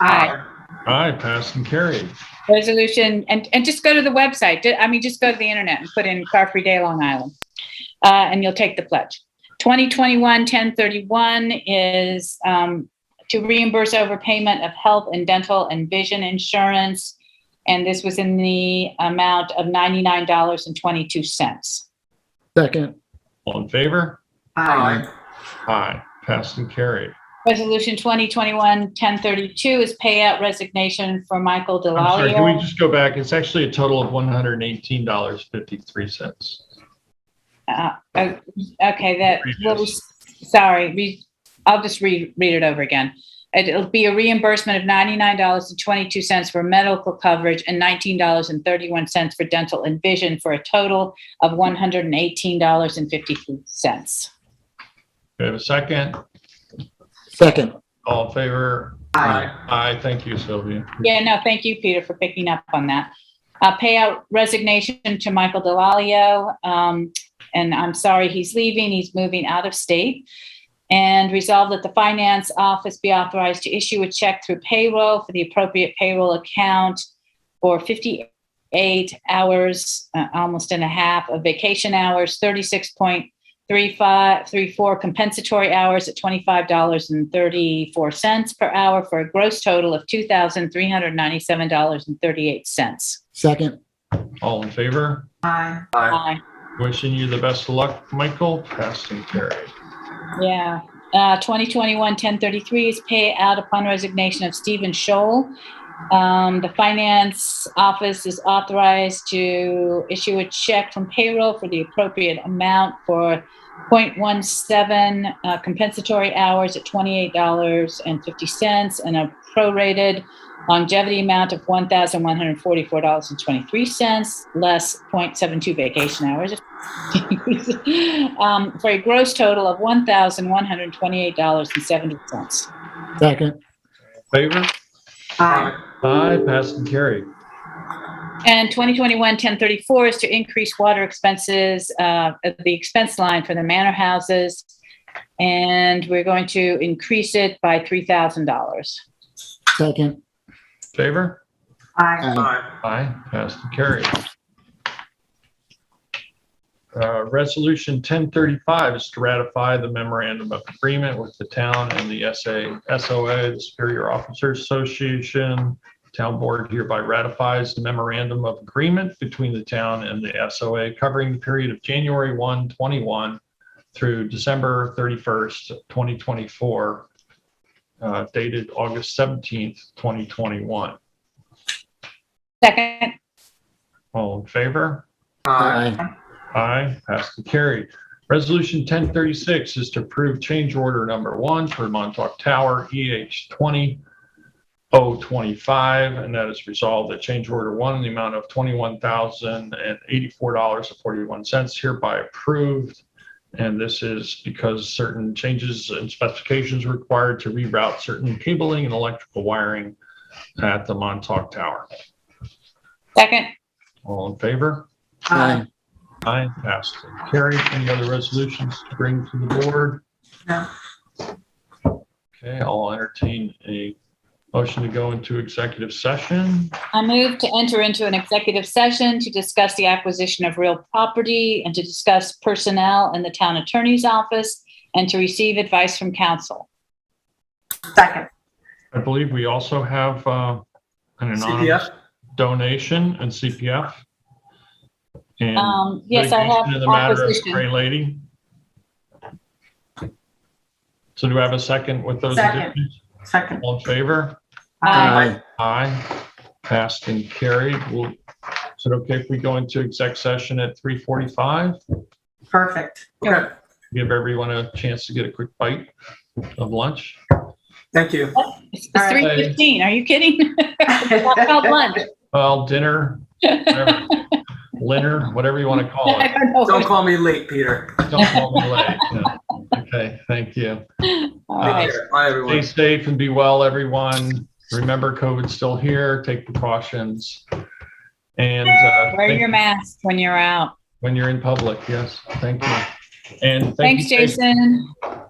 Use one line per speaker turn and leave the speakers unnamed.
Aye.
Aye, passed and carried.
Resolution, and, and just go to the website. Ju- I mean, just go to the internet and put in Car Free Day, Long Island. Uh, and you'll take the pledge. 2021-1031 is, um, to reimburse overpayment of health and dental and vision insurance. And this was in the amount of $99.22.
second,
All in favor?
Aye.
Aye, passed and carried.
Resolution 2021-1032 is payout resignation for Michael
I'm sorry, can we
Delalio.
just go back? It's actually a total of one hundred and eighteen dollars fifty-three cents.
Uh, oh, Okay, that, little-
Previous.
sorry, re- I'll just read, read it over again. It- It'll be a reimbursement of $99.22 for medical coverage and $19.31 for dental and vision for a total of $118.53.
Do we have a second?
second,
All in favor?
Aye.
Aye, thank you, Sylvia.
Yeah, no, thank you, Peter, for picking up on that. Uh, payout resignation to Michael Delalio. Um, and I'm sorry he's leaving. He's moving out of state. And resolve that the finance office be authorized to issue a check through payroll for the appropriate payroll account for 58 hours, uh, almost and a half of vacation hours, 36.3534 compensatory hours at $25.34 per hour for a gross total of $2,397.38.
second,
All in favor?
Aye.
Aye.
Wishing you the best of luck, Michael. Passed and carried.
Yeah. Uh, 2021-1033 is pay out upon resignation of Stephen Scholl. Um, the finance office is authorized to issue a check from payroll for the appropriate amount for 0.17 uh, compensatory hours at $28.50 and a prorated longevity amount of $1,144.23 less 0.72 vacation hours um, for a gross total of one thousand one hundred twenty-eight dollars and seventy cents.
second,
Favor?
Aye.
Aye, passed and carried.
And 2021-1034 is to increase water expenses, uh, at the expense line for the manor houses. And we're going to increase it by three thousand dollars.
second,
Favor?
Aye.
Aye, passed and carried. Uh, Resolution 1035 is to ratify the memorandum of agreement with the town and the SA, SOA, the Superior Officers Association. Town Board hereby ratifies the memorandum of agreement between the town and the SOA covering the period of January 1, 21 through December 31st, 2024, uh, dated August 17th, 2021.
Second,
All in favor?
aye,
Aye, passed and carried. Resolution 1036 is to approve change order number one for Montauk Tower EH 20025, and that is resolved that change order one in the amount of $21,084.41 hereby approved. And this is because certain changes and specifications required to reroute certain cabling and electrical wiring at the Montauk Tower.
second,
All in favor?
aye,
Aye, passed and carried. Any other resolutions to bring to the board?
No.
Okay, I'll entertain a motion to go into executive session.
I move to enter into an executive session to discuss the acquisition of real property and to discuss personnel in the town attorney's office and to receive advice from counsel.
Second.
I believe we also have uh, an anonymous
CPF?
donation and CPF. And
Um, yes, I
litigation in
have
the matter of
opposition.
Gray Lady. So do I have a second with those
Second.
additions?
Second.
All in favor?
aye,
Aye. Passed and carried. Well, is it okay if we go into exec session at 3:45?
Perfect. Okay.
Give everyone a chance to get a quick bite of lunch?
Thank you.
It's three fifteen, are you kidding? I called
Don't
lunch.
Well, dinner, whatever, dinner, whatever you want to call
I
it.
don't know.
call me late, Peter.
Don't call me late. No. Okay, thank you.
All
uh,
right.
Take care. Bye,
Stay
everyone.
safe and be well, everyone. Remember, COVID's still here. Take precautions. And uh,
Wear
thank-
your mask when you're out.
when you're in public, yes, thank you. And thank
Thanks,
you, Jason.
Jason.